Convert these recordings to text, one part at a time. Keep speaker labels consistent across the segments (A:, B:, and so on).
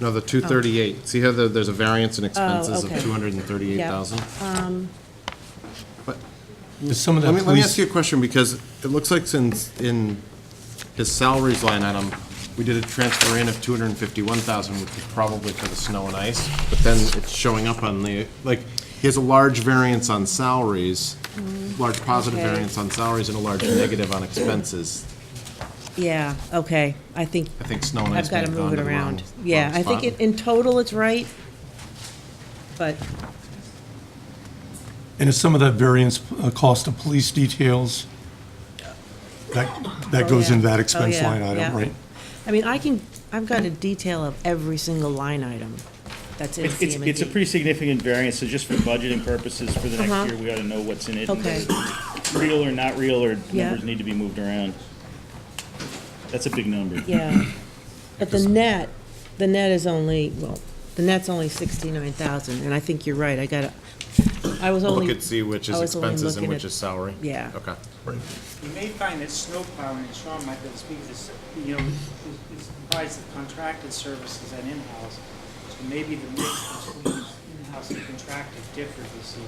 A: No, the 238. See how the- there's a variance in expenses of
B: Oh. okay. Um,
A: 238,000?
C: Some of
A: Let
C: that
A: me, let me ask
C: police,
A: you a question, because it looks like since in his salaries line item, we did a transfer in of 251,000, which was probably for the snow and ice, but then it's showing up on the, like, he has a large variance on salaries, large positive
B: Mm-hmm. okay.
A: variance on salaries and a large negative on expenses.
B: Yeah, okay, I think,
A: I think snow and ice
B: I've
A: may
B: got
A: have
B: to move
A: gone
B: it
A: to the wrong-
B: around. Yeah,
A: wrong
B: I think
A: spot.
B: in- in total it's right, but,
C: and is some of that variance uh, cost of police details? That, that
B: Oh,
C: goes
B: yeah.
C: into
B: Oh,
C: that expense
B: yeah,
C: line
B: yeah.
C: item, right?
B: I mean, I can, I've got a detail of every single line item that's in
D: It's, it's- it's a
B: CM&D.
D: pretty significant variance, so just for budgeting purposes for the
B: Uh-huh.
D: next year, we ought to know what's in it. and
B: Okay.
D: whether it's Real or not real, or
B: Yeah.
D: numbers need to be moved around. That's a big number.
B: Yeah, but the net, the net is only, well, the net's only 69,000, and I think you're right, I got to, I was only.
A: Look and see which
B: I
A: is
B: was only
A: expenses and
B: looking
A: which
B: at-
A: is salary?
B: Yeah.
A: Okay.
E: You may find that snow plowing, and Sean might be able to speak to this, you know, is is comprised of contracted services and in-house. So maybe the mix between in-house and contracted differs this year.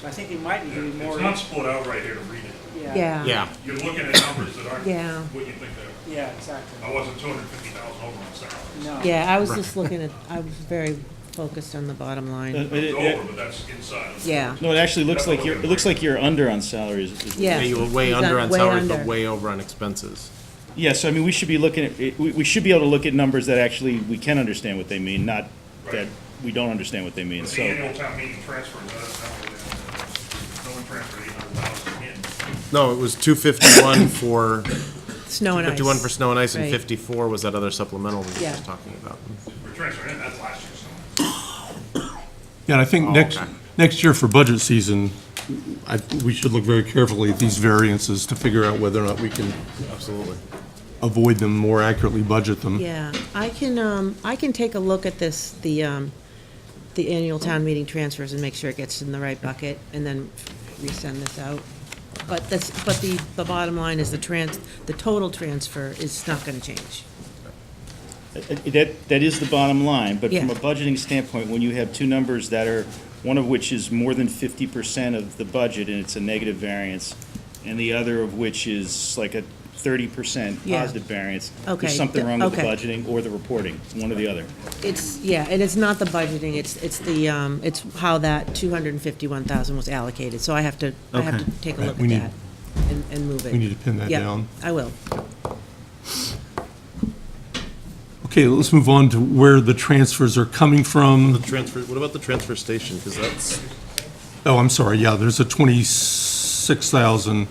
E: So I think it might even be more,
F: It's not split out right here to read it.
E: yeah,
B: Yeah.
A: Yeah,
F: You're looking at numbers that aren't
B: Yeah.
F: what you think they
E: yeah,
F: are. I
E: exactly.
F: wasn't two hundred fifty thousand over on salaries.
E: No.
B: Yeah, I was just looking at, I was very focused on the bottom
D: Uh,
B: line.
D: it-
F: It's
D: it-
F: over,
D: it-
F: but that's inside.
B: Yeah.
D: No, it actually looks like you're, it looks like you're under on salaries. is-
B: Yeah.
A: Yeah, you were way
B: He's
A: under
B: done
A: on
B: way
A: salaries,
B: under.
A: but way over on expenses.
D: Yeah, so I mean, we should be looking at, it- we, we should be able to look at numbers that actually we can understand what they mean, not that
F: Right.
D: we don't understand what they mean,
F: The
D: so.
F: annual town meeting transfer, that's not what it is. no one transferred eight hundred thousand in.
A: No, it was 251 for
B: Snow and ice.
A: 51 for snow and ice, and
B: Right.
A: 54 was that other supplemental we were
B: Yeah.
A: just talking about.
F: We're transferring in, that's last year's. number.
C: Yeah, and I think
A: Oh,
C: next,
A: okay.
C: next year for budget season, I, we should look very carefully at these variances to figure out whether or not we can
A: Absolutely.
C: avoid them, more accurately budget them.
B: Yeah, I can, um, I can take a look at this, the, um, the annual town meeting transfers and make sure it gets in the right bucket and then resend this out. But that's, but the, the bottom line is the trans, the total transfer is not gonna change.
D: Uh, That, that is the bottom line, but from
B: Yeah.
D: a budgeting standpoint, when you have two numbers that are, one of which is more than fifty percent of the budget and it's a negative variance, and the other of which is like a thirty percent
B: Yeah.
D: positive variance,
B: Okay,
D: there's something
B: th-
D: wrong with the
B: okay.
D: budgeting or the reporting, one or the other.
B: It's, yeah, and it's not the budgeting, it's, it's the, um, it's how that two hundred and fifty-one thousand was allocated, so I have to, I have
C: Okay.
B: to take a
C: Right,
B: look
C: we
B: at
C: need-
B: that and, and move it.
C: we need to pin that down.
B: Yeah, I will.
C: Okay, let's move on to where the transfers are coming from.
A: Transfer, what about the transfer station? Because that's,
C: Oh, I'm sorry, yeah, there's a 26,000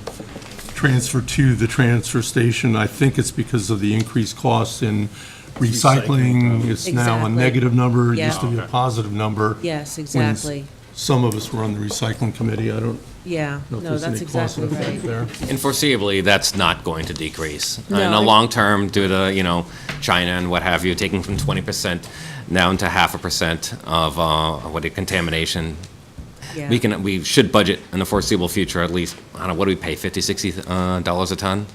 C: transfer to the transfer station. I think it's because of the increased costs in recycling. It's now a
B: Exactly.
C: negative number, it used to
B: Yeah.
C: be a positive number.
B: Yes,
C: when s-
B: exactly,
C: Some of us were on the recycling committee, I don't
B: yeah,
C: know if
B: no,
C: there's
B: that's
C: any cost
B: exactly
C: effect
B: right.
C: there.
G: And foreseeably, that's not going to decrease. Uh, In
B: No,
G: the
B: I-
G: long term, due to, you know, China and what have you, taking from 20% down to half a percent of, uh, what, the contamination,
B: Yeah.
G: we can, we should budget in the foreseeable future at least, I don't know, what do we pay, 50, 60 uh, dollars a ton?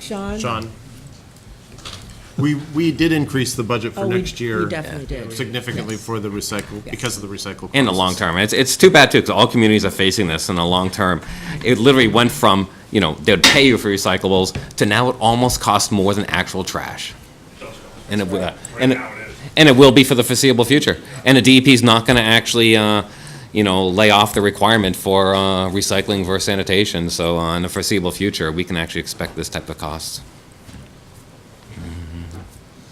B: Sean?
A: Sean. We, we did increase the budget for
B: Oh, we-
A: next year.
B: we definitely did.
A: Significantly
B: Yes.
A: for the recycle, because of the recycle.
G: In the long
A: costs.
G: term. It's, it's too bad too, because all communities are facing this in the long term. It literally went from, you know, they'd pay you for recyclables to now it almost costs more than actual trash. And it, will-
F: Right
G: and it,
F: now it is.
G: and it will be for the foreseeable future. And the DEP is not going to actually, uh, you know, lay off the requirement for uh, recycling versus sanitation. So uh, in the foreseeable future, we can actually expect this type of cost.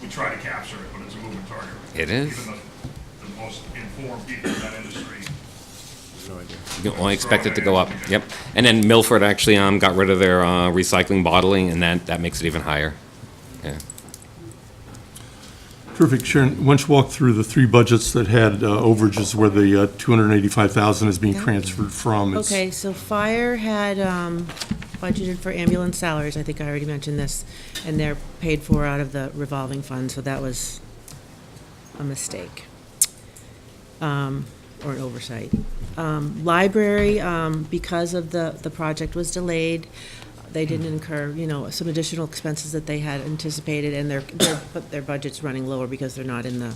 F: We try to capture it, but it's a moving target.
G: It is.
F: Even the, the most informed people in that industry
G: You can only expect it to go up. Yep. And then Milford actually um, got rid of their uh, recycling bottling, and that, that makes it even higher. Yeah.
C: Terrific, Sharon, why don't you walk through the three budgets that had uh, overages where the uh, 285,000 is being transferred from? It's-
B: Okay, so fire had um, budgeted for ambulance salaries, I think I already mentioned this, and they're paid for out of the revolving fund, so that was a mistake. um, Or an oversight. Um, Library, um, because of the, the project was delayed, they didn't incur, you know, some additional expenses that they had anticipated, and their, their, but their budget's running lower because they're not in the